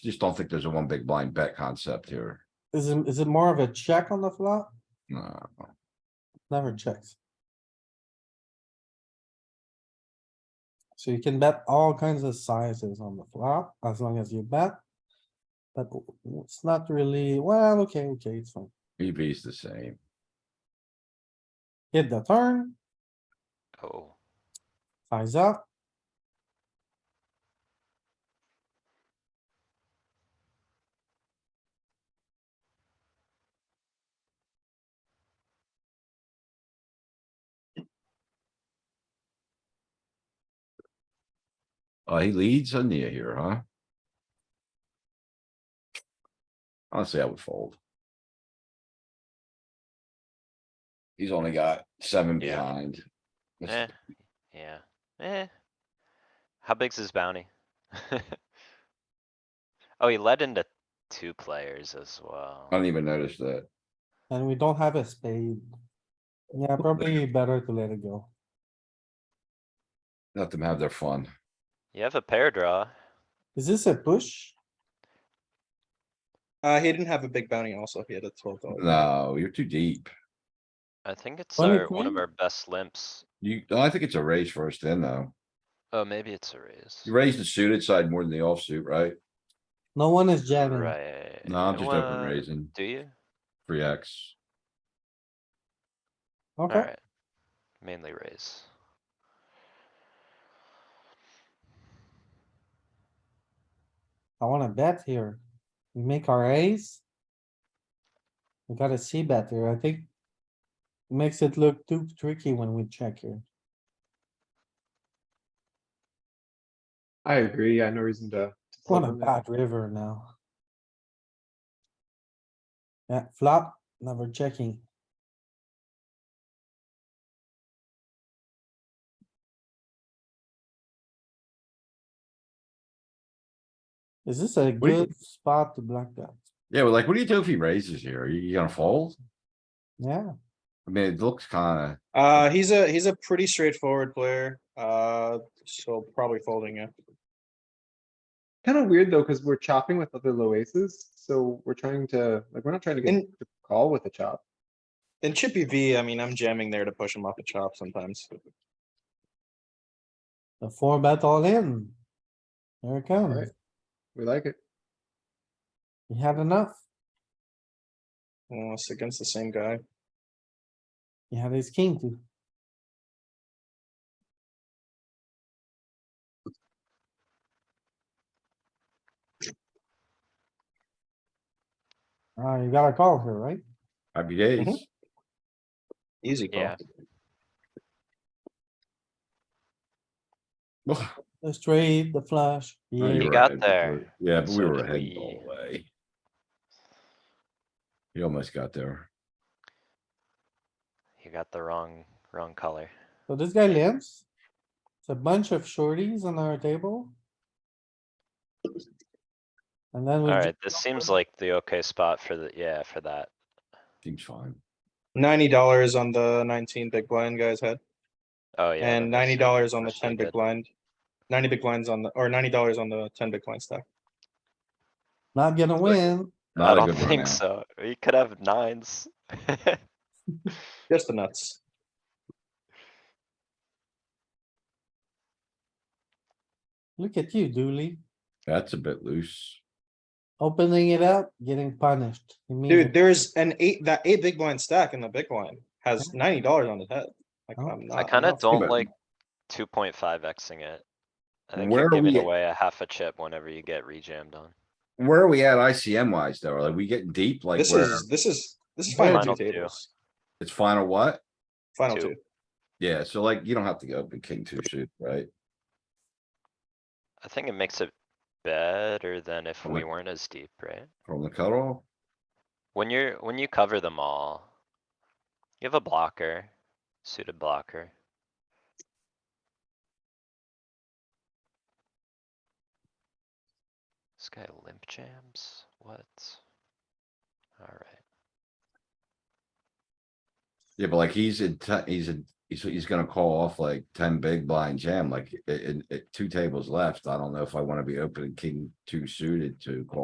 just don't think there's a one big blind bet concept here. Is it, is it more of a check on the flop? No, Never checks. So you can bet all kinds of sizes on the flop as long as you bet. But it's not really, well, okay, okay, it's fine. EV's the same. Hit the turn, Oh, size up. Uh, he leads on the here, huh? Honestly, I would fold. He's only got seven Yeah. behind. Let's- eh, yeah, eh. How big's his bounty? Oh, he led into two players as well. I didn't even notice that. And we don't have a spade. Yeah, probably better to let it go. Let them have their fun. You have a pair draw. Is this a push? Uh, he didn't have a big bounty also. He had a twelve dollar. No, you're too deep. I think it's Only our, one of queen? our best limps. You, I think it's a raise first then, though. Oh, maybe it's a raise. You raise the suited side more than the offsuit, right? No one is jamming. Right. No, I'm just open Eh, Well, raising, Do you? three X. Okay, Alright. Mainly raise. I wanna bet here. We make our ace. We gotta see better, I think. Makes it look too tricky when we check here. I agree. Yeah, no reason to. to What a fold on that. bad river now. Yeah, flop, never checking. Is this a do you- good spot to block that? Yeah, well, like, what do you do if he raises here? Are you gonna fold? Yeah, I mean, it looks kinda, Uh, he's a he's a pretty straightforward player. Uh, so probably folding it. Kinda weird though, cuz we're chopping with other low aces, so we're trying to, like, we're not trying to get And- the call with a chop. And Chippy V, I mean, I'm jamming there to push him off the chop sometimes. the four bet all in. There it comes. Alright, we like it. You had enough. Uh, it's against the same guy. You had ace king too. Ah, you got a call here, right? happy Mm-hmm. days. Easy call. Yeah. Ugh. The straight, the flush. No, yeah. you're Oh, You got right, we there. were- Yeah, but we So were did ahead we. all the way. You almost got there. You got the wrong, wrong color. So this guy limps. It's a bunch of shorties on our table. And then we, Alright, ju- this seems like the okay spot for the, yeah, for that. Seems fine. Ninety dollars on the nineteen big blind guy's head, Oh, yeah. and that ninety makes dollars on the actually ten big good. blind. Ninety big blinds on the or ninety dollars on the ten big blind stack. not gonna win. I Not a don't good run think out. so. You could have nines. Just the nuts. Look at you, Dooley, That's a bit loose. opening it up, getting punished. Dude, immediately. there's an eight that eight big blind stack in the big blind has ninety dollars on his head. Like, Oh. I'm not, Uh, I kinda not- don't but- like two point five Xing it. I think Where you're are giving we- away a half a chip whenever you get rejammed on. Where are we at ICM wise though? Are we getting deep like This where is, this is, this is Where- final Final two two. tables, it's final what? final Two. two. Yeah, so like you don't have to go open king two suit, right? I think it makes it better than if Well, we it- weren't as deep, right? From the cutoff? When you're, when you cover them all. You have a blocker, suited blocker. This guy limp jams, what? Alright, Yeah, but like he's in, te- he's in, he's, he's gonna call off like ten big blind jam, like i- in, i- two tables left. I don't know if I wanna be opening king two suited to call.